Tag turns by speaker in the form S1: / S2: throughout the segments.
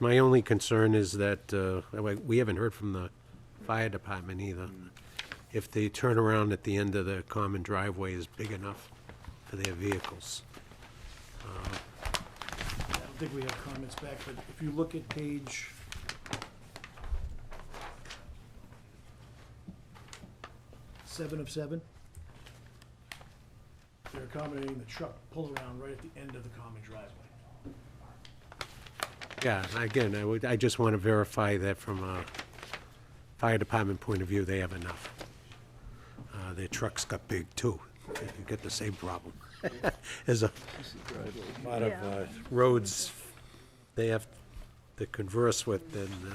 S1: My only concern is that, uh, we- we haven't heard from the fire department either. If the turnaround at the end of the common driveway is big enough for their vehicles.
S2: I don't think we have comments back, but if you look at page. Seven of seven. They're accommodating the truck pull around right at the end of the common driveway.
S1: Yeah, again, I would, I just want to verify that from a fire department point of view, they have enough. Uh, Their trucks got big too. You get the same problem. There's a lot of uh, roads they have to converse with and, uh,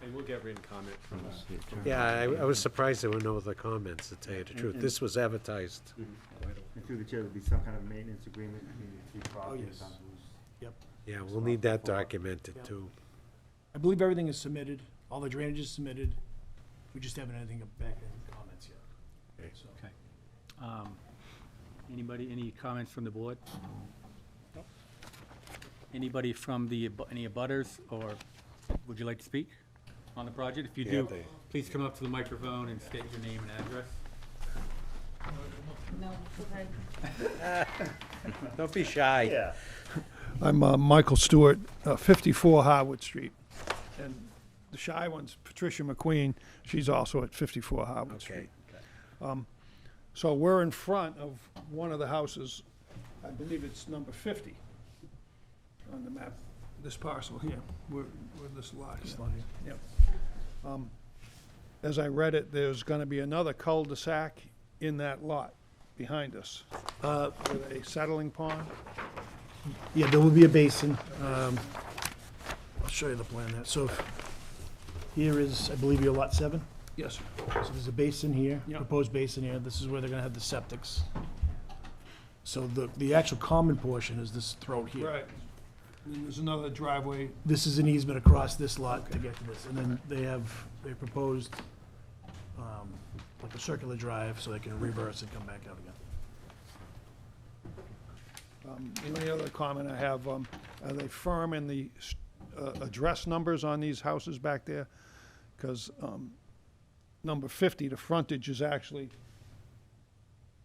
S3: Hey, we'll get written comment from us.
S1: Yeah, I, I was surprised there were no other comments, to tell you the truth.
S4: and-
S1: This was advertised.
S4: And through the chair, there'd be some kind of maintenance agreement between the two
S2: yes.
S4: properties on who's.
S2: Yep.
S1: Yeah, we'll need that documented too.
S2: I believe everything is submitted, all the drainage is submitted. We just haven't anything back in comments yet.
S1: Okay.
S2: So,
S3: Okay. Um, Anybody, any comments from the board? Anybody from the, abu- any abutters, or would you like to speak on the project? If you
S1: Yeah,
S3: do,
S1: they-
S3: please come up to the microphone and state your name and address.
S5: No, okay.
S1: Don't be shy.
S6: I'm uh, Michael Stewart, uh, 54 Harwood Street. And the shy one's Patricia McQueen. She's also at 54 Harwood
S1: Okay.
S6: Street. So we're in front of one of the houses. I believe it's number 50 on the map, this parcel here, where where this lot is. Yep. Um, As I read it, there's going to be another cul-de-sac in that lot behind us
S2: uh,
S6: with a settling pond.
S2: Yeah, there will be a basin. Um, I'll show you the plan there. So here is, I believe, your lot seven.
S6: Yes, sir.
S2: So there's a basin here,
S6: Yeah.
S2: proposed basin here. This is where they're gonna have the septics. So the, the actual common portion is this throat here.
S6: Right. And then there's another driveway
S2: This is an easement across this lot to get to this. And then they have, they proposed, um, like a circular drive so they can reverse and come back out again.
S6: Um, The only other comment I have, um, are they firm in the s- uh, address numbers on these houses back there? Because number 50, the frontage is actually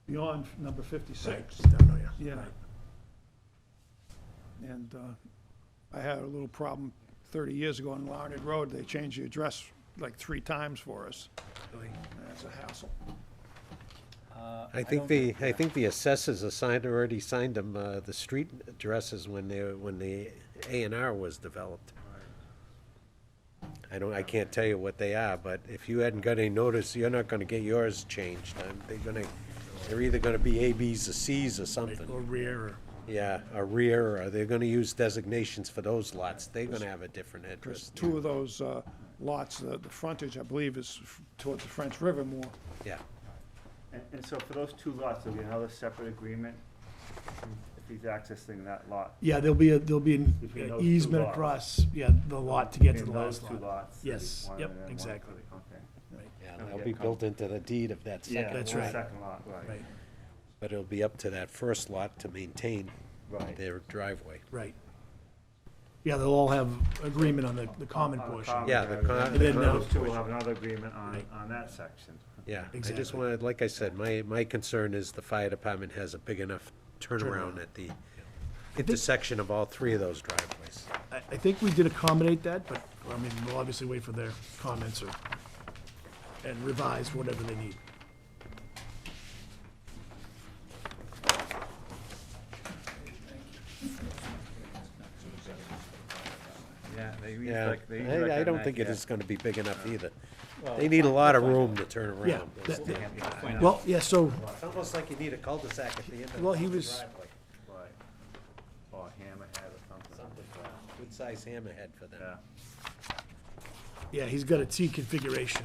S6: beyond number 56.
S2: Down there, yeah.
S6: Yeah. And uh, I had a little problem 30 years ago on Larned Road. They changed the address like three times for us. That's a hassle.
S1: I think the, I think the assessors assigned, already signed them, uh, the street addresses when they, when the A and R was developed. I don't, I can't tell you what they are, but if you hadn't got any notice, you're not gonna get yours changed. Um, They're gonna, they're either gonna be A, Bs, or Cs or something.
S2: Or rear or.
S1: Yeah, a rear, or they're gonna use designations for those lots. They're gonna have a different
S6: Because
S1: address.
S6: two of those uh, lots, the the frontage, I believe, is f- towards the French River more.
S1: Yeah.
S4: And, and so for those two lots, there'll be another separate agreement if he's accessing that lot.
S2: Yeah, there'll be, a there'll be an
S4: Between those two
S2: easement
S4: lots.
S2: across, yeah, the lot to get to
S4: In
S2: the
S4: those
S2: last
S4: two
S2: lot.
S4: lots. there'll be
S2: Yes,
S4: one
S2: yep,
S4: and then one
S2: exactly.
S4: for the- Okay.
S1: Yeah,
S4: Don't
S1: that'll
S4: get
S1: be built into the deed of that
S4: Yeah,
S1: second,
S2: That's
S4: the
S2: right.
S4: Second lot, right.
S2: Right,
S1: but it'll be up to that first lot to maintain
S4: Right.
S1: their driveway.
S2: right. Yeah, they'll all have agreement on the, the common
S4: On the
S2: portion.
S4: common
S1: Yeah, the
S4: area.
S1: con-
S2: And then now-
S4: Those two will have another agreement on,
S2: Right.
S4: on that section.
S1: Yeah, I just
S2: Exactly.
S1: wanted, like I said, my, my concern is the fire department has a big enough turnaround at the intersection of all three of those driveways.
S2: I, I think we did accommodate that, but, I mean, we'll obviously wait for their comments or, and revise whatever they need.
S7: Yeah, they use
S1: Yeah,
S7: like, they use like
S1: I, I
S7: a
S1: don't
S7: knife,
S1: think it
S7: yeah.
S1: is gonna be big enough either. They need a lot of room to turn
S2: Yeah,
S1: around.
S2: that-
S1: It's
S2: well, yeah, so,
S1: almost like you need a cul-de-sac at the end
S2: Well,
S1: of
S2: he
S1: the
S2: was-
S1: driveway.
S4: Right. Or hammerhead or something.
S1: Good size hammerhead for them.
S4: Yeah,
S2: yeah, he's got a T configuration,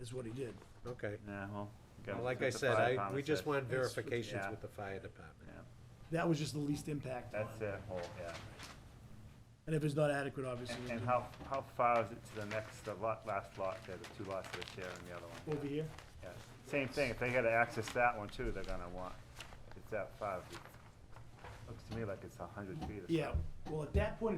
S2: is what he did.
S1: Okay.
S4: yeah, well. gotta
S1: Well, Like
S4: put
S1: I
S4: the
S1: said,
S4: fire
S1: I,
S4: department
S1: we just
S4: said.
S1: want verifications
S4: yeah.
S1: with the fire department.
S4: Yeah,
S2: That was just the least impact. on-
S4: That's their whole, yeah.
S2: And if it's not adequate, obviously,
S4: And-
S2: we'll
S4: And
S2: do-
S4: how, how far is it to the next, the lot, last lot, there, the two lots that are sharing the other one?
S2: over here,
S4: Yeah. Same thing, if they gotta access that one too, they're gonna want, if it's that far, it looks to me like it's a hundred feet or something.
S2: Yeah, well, at that point,